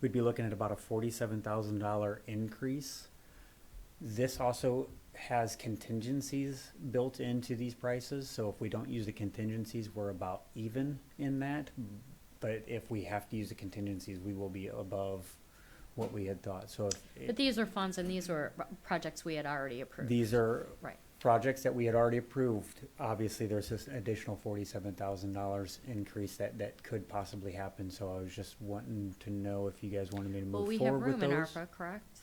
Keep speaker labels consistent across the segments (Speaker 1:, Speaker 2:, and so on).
Speaker 1: we'd be looking at about a forty-seven thousand dollar increase. This also has contingencies built into these prices, so if we don't use the contingencies, we're about even in that. But if we have to use the contingencies, we will be above what we had thought, so if.
Speaker 2: But these are funds and these were r- projects we had already approved.
Speaker 1: These are
Speaker 2: Right.
Speaker 1: projects that we had already approved. Obviously, there's this additional forty-seven thousand dollars increase that, that could possibly happen, so I was just wanting to know if you guys wanted me to
Speaker 2: Well,
Speaker 1: move
Speaker 2: we have
Speaker 1: forward
Speaker 2: room
Speaker 1: with
Speaker 2: in
Speaker 1: those.
Speaker 2: ARPA, correct?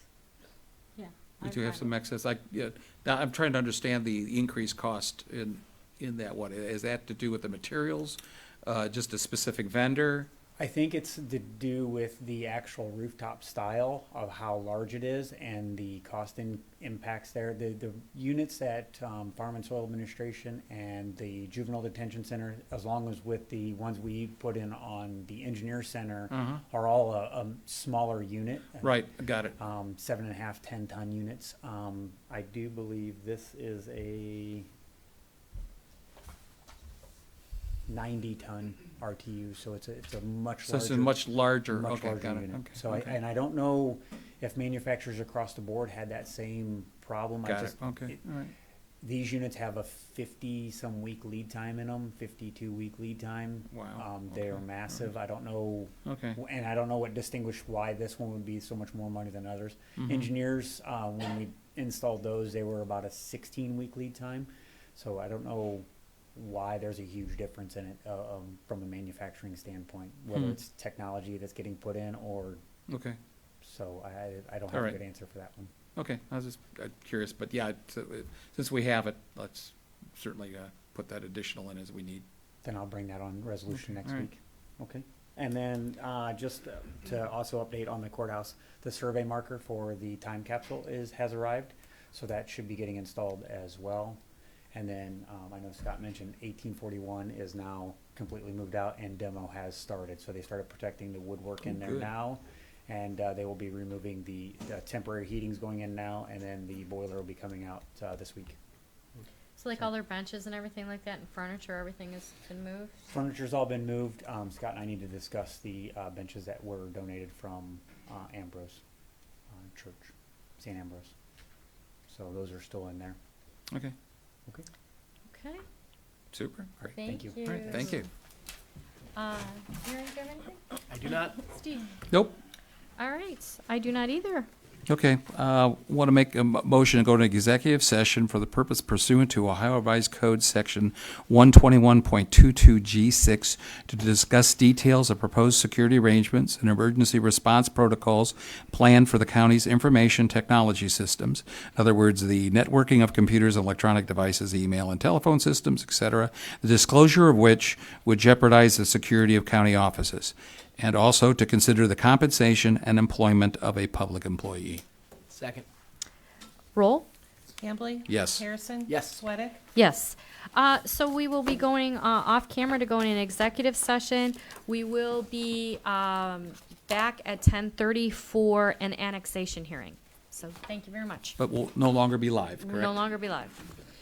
Speaker 2: Yeah.
Speaker 3: We do have some excess, I, yeah, now, I'm trying to understand the increased cost in, in that one, is that to do with the materials? Uh, just a specific vendor?
Speaker 1: I think it's to do with the actual rooftop style of how large it is and the cost in, impacts there. The, the units at, um, Farm and Soil Administration and the Juvenile Detention Center, as long as with the ones we put in on the Engineer Center,
Speaker 3: Mhm.
Speaker 1: are all a, a smaller unit.
Speaker 3: Right, got it,
Speaker 1: um, seven and a half, ten ton units. Um, I do believe this is a ninety ton RTU, so it's a, it's a much
Speaker 3: so
Speaker 1: larger.
Speaker 3: it's a much larger,
Speaker 1: much
Speaker 3: okay,
Speaker 1: larger
Speaker 3: got it,
Speaker 1: unit.
Speaker 3: okay.
Speaker 1: So I,
Speaker 3: okay.
Speaker 1: and I don't know if manufacturers across the board had that same problem. I
Speaker 3: Got it,
Speaker 1: just-
Speaker 3: okay, all right,
Speaker 1: These units have a fifty-some week lead time in them, fifty-two week lead time.
Speaker 3: wow.
Speaker 1: Um, they
Speaker 3: okay,
Speaker 1: are massive. I don't know
Speaker 3: Okay,
Speaker 1: w- and I don't know what distinguished why this one would be so much more money than others.
Speaker 3: Mhm.
Speaker 1: Engineers, uh, when we installed those, they were about a sixteen week lead time. So I don't know why there's a huge difference in it, uh, um, from a manufacturing standpoint, whether
Speaker 3: Hmm.
Speaker 1: it's technology that's getting put in or,
Speaker 3: okay,
Speaker 1: so I- I, I don't have a
Speaker 3: Alright.
Speaker 1: good answer for that one.
Speaker 3: okay, I was just uh, curious, but yeah, it's, uh, since we have it, let's certainly, uh, put that additional in as we need.
Speaker 1: Then I'll bring that on resolution
Speaker 3: Okay,
Speaker 1: next
Speaker 3: all right.
Speaker 1: week. Okay. And then, uh, just to also update on the courthouse, the survey marker for the time capsule is, has arrived. So that should be getting installed as well. And then, um, I know Scott mentioned eighteen forty-one is now completely moved out and demo has started. So they started protecting the woodwork in
Speaker 3: Oh,
Speaker 1: there
Speaker 3: good.
Speaker 1: now. And, uh, they will be removing the, the temporary heating's going in now and then the boiler will be coming out, uh, this week.
Speaker 2: So like all their benches and everything like that and furniture, everything has been moved?
Speaker 1: Furniture's all been moved. Um, Scott and I need to discuss the, uh, benches that were donated from, uh, Ambrose, uh, Church, St. Ambrose. So those are still in there.
Speaker 3: Okay,
Speaker 1: Okay.
Speaker 2: Okay,
Speaker 3: super, great,
Speaker 2: thank
Speaker 1: Thank
Speaker 2: you.
Speaker 1: you.
Speaker 3: all right, thank you.
Speaker 2: Uh, Aaron, do you have anything?
Speaker 4: I do not
Speaker 2: Steve?
Speaker 3: Nope,
Speaker 2: All right, I do not either.
Speaker 3: Okay, uh, want to make a mo- motion to go to executive session for the purpose pursuant to Ohio Revised Code, Section 121.22G6, to discuss details of proposed security arrangements and emergency response protocols planned for the county's information technology systems. In other words, the networking of computers, electronic devices, email and telephone systems, et cetera, the disclosure of which would jeopardize the security of county offices and also to consider the compensation and employment of a public employee.
Speaker 4: second.
Speaker 2: Roll?
Speaker 5: Hambley?
Speaker 3: Yes.
Speaker 5: Harrison?
Speaker 4: Yes.
Speaker 5: Sweattick?
Speaker 2: Yes. Uh, So we will be going uh, off camera to go in an executive session. We will be um, back at 10:30 for an annexation hearing. So thank you very much.
Speaker 3: But will no longer be live,
Speaker 2: We'll no
Speaker 3: correct?
Speaker 2: longer be live.